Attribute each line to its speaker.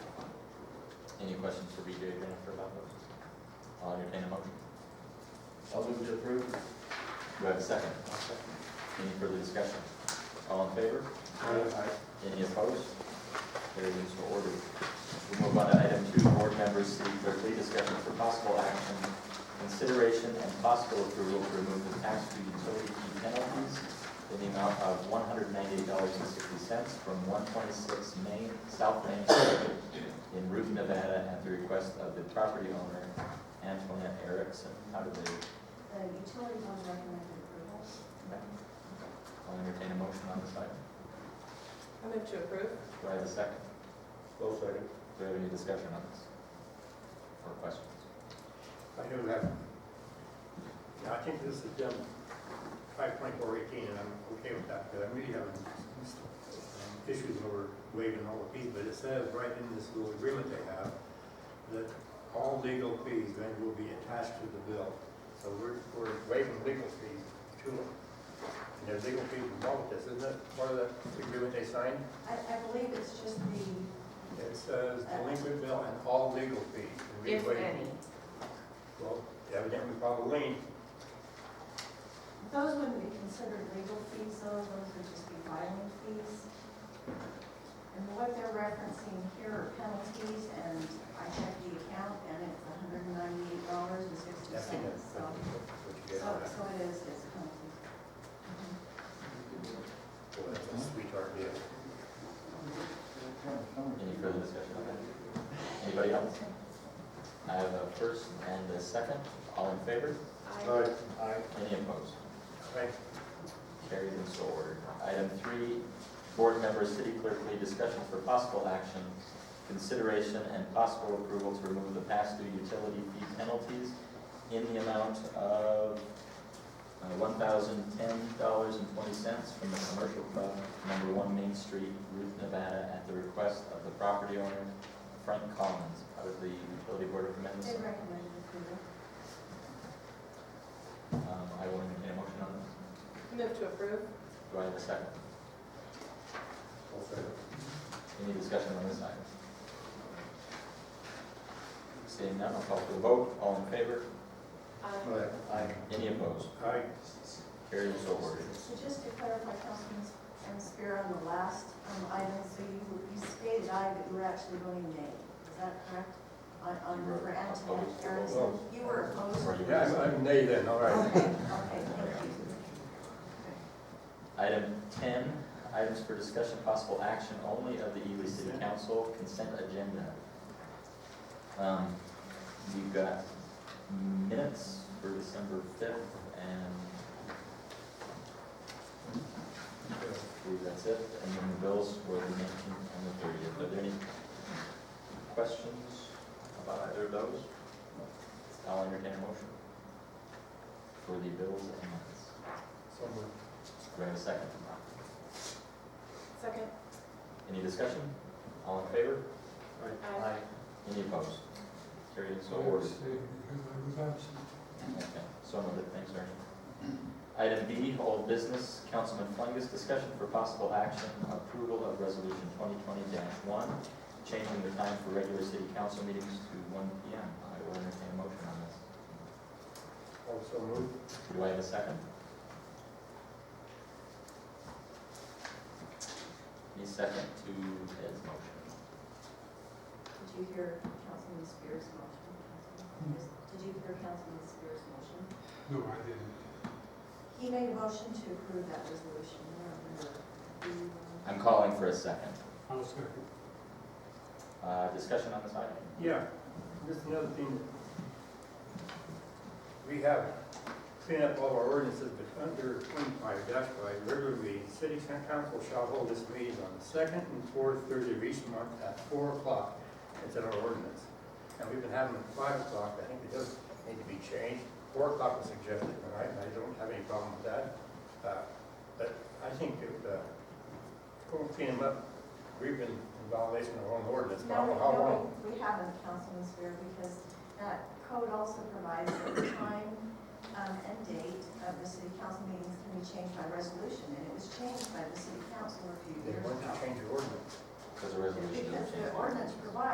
Speaker 1: Any questions for BJ, Jennifer, about those? I'll entertain a motion.
Speaker 2: I'll move to approve.
Speaker 1: Do I have a second? Any further discussion? All in favor? Any opposed? Carried and so ordered. We move on to item two, board members, city clerk, lead discussion for possible action, consideration and possible approval to remove the tax due utility fee penalties in the amount of one hundred ninety-eight dollars and sixty cents from one twenty-six Main, South Main Street in Newton, Nevada, at the request of the property owner, Antoinette Erickson. How do they
Speaker 3: The utility fund recommended approval.
Speaker 1: I'll entertain a motion on this item.
Speaker 4: I move to approve.
Speaker 1: Do I have a second?
Speaker 2: Both second.
Speaker 1: Do we have any discussion on this? Or questions?
Speaker 5: I do have, yeah, I think this is um, five twenty-four eighteen, and I'm okay with that, because I'm really having um, issues over waiving all the fees, but it says right in this little agreement they have that all legal fees then will be attached to the bill. So we're, we're waiving legal fees to them. And there's legal fees involved with this, isn't it? Part of the agreement they signed,
Speaker 3: I, I believe it's just the,
Speaker 5: it says delinquent bill and all legal fees. and we
Speaker 4: If
Speaker 5: waive-
Speaker 4: any.
Speaker 5: Well, evidently, probably lien,
Speaker 3: those wouldn't be considered legal fees though, those would just be filing fees. And what they're referencing here are penalties and I checked the account and it's hundred and ninety-eight dollars and sixty
Speaker 5: Yes, it is.
Speaker 3: cents, so, so, so it is, it's penalties.
Speaker 5: Boy, that's a sweetheart deal.
Speaker 1: Any further discussion on that? Anybody else? I have a first and a second. All in favor?
Speaker 4: I
Speaker 5: Aye.
Speaker 1: Any opposed?
Speaker 5: Aye.
Speaker 1: Carried and so ordered. Item three, board members, city clerk, lead discussion for possible action, consideration and possible approval to remove the past due utility fee penalties in the amount of uh, one thousand ten dollars and twenty cents from the commercial club, number one Main Street, Ruth, Nevada, at the request of the property owner, Frank Collins, out of the utility board of
Speaker 3: They
Speaker 1: amendments.
Speaker 3: recommended approval.
Speaker 1: Um, I will entertain a motion on this.
Speaker 4: move to approve.
Speaker 1: Do I have a second?
Speaker 5: All set.
Speaker 1: Any discussion on this item? Seeing none, I'll call for the vote. All in favor?
Speaker 4: I
Speaker 5: Aye.
Speaker 1: Any opposed?
Speaker 5: Aye.
Speaker 1: Carried and so ordered.
Speaker 3: So just to clarify, Councilman Spear, on the last um, item, so you you stated I, but you were actually voting nay. Is that correct? On, on,
Speaker 1: You were
Speaker 3: for Antoinette
Speaker 1: opposed to the
Speaker 3: Aronson?
Speaker 5: vote.
Speaker 3: You were opposed?
Speaker 1: Or you were
Speaker 5: Yeah,
Speaker 1: just-
Speaker 5: I'm- I'm nay then, all right.
Speaker 3: Okay, okay, thank you.
Speaker 1: Item ten, items for discussion, possible action only of the Ely City Council consent agenda. Um, You've got minutes for December fifth and I believe that's it. And then the bills were the nineteenth and the thirtieth. Are there any questions about either of those? I'll entertain a motion for the bills and minutes.
Speaker 5: So moved.
Speaker 1: Do I have a second?
Speaker 4: Second.
Speaker 1: Any discussion? All in favor?
Speaker 4: Aye.
Speaker 1: Any opposed? Carried and so ordered. Okay, so noted, thanks, Ernie. Item B, old business, Councilman Fungus, discussion for possible action, approval of resolution twenty twenty one, changing the time for regular city council meetings to one P M. I will entertain a motion on this.
Speaker 5: Also moved.
Speaker 1: Do I have a second? Any second to Ed's motion?
Speaker 3: Did you hear Councilman Spear's motion? Councilman Spears? Did you hear Councilman Spear's motion?
Speaker 6: No, I didn't.
Speaker 3: He made a motion to approve that resolution. I don't remember. Do you, um,
Speaker 1: I'm calling for a second.
Speaker 6: I'll second.
Speaker 1: Uh, discussion on this item?
Speaker 5: Yeah, just another thing. We have cleaned up all our ordinances, but under twenty-five dash five, regular meetings, city council shall hold this meeting on the second and fourth Thursday of each month at four o'clock. It's in our ordinance. And we've been having it at five o'clock, I think it does need to be changed. Four o'clock was suggested, all right, and I don't have any problem with that. Uh, But I think if, uh, we'll clean them up, we've been in violation of our own ordinance, but I
Speaker 3: No,
Speaker 5: don't know how long.
Speaker 3: no, we haven't, Councilman Spear, because that code also provides that the time um, and date of the city council meetings can be changed by resolution, and it was changed by the city council a few
Speaker 5: They
Speaker 3: years
Speaker 5: want
Speaker 3: ago.
Speaker 5: to change the ordinance.
Speaker 1: Because the resolution is
Speaker 3: Because
Speaker 1: changed.
Speaker 3: the ordinance provides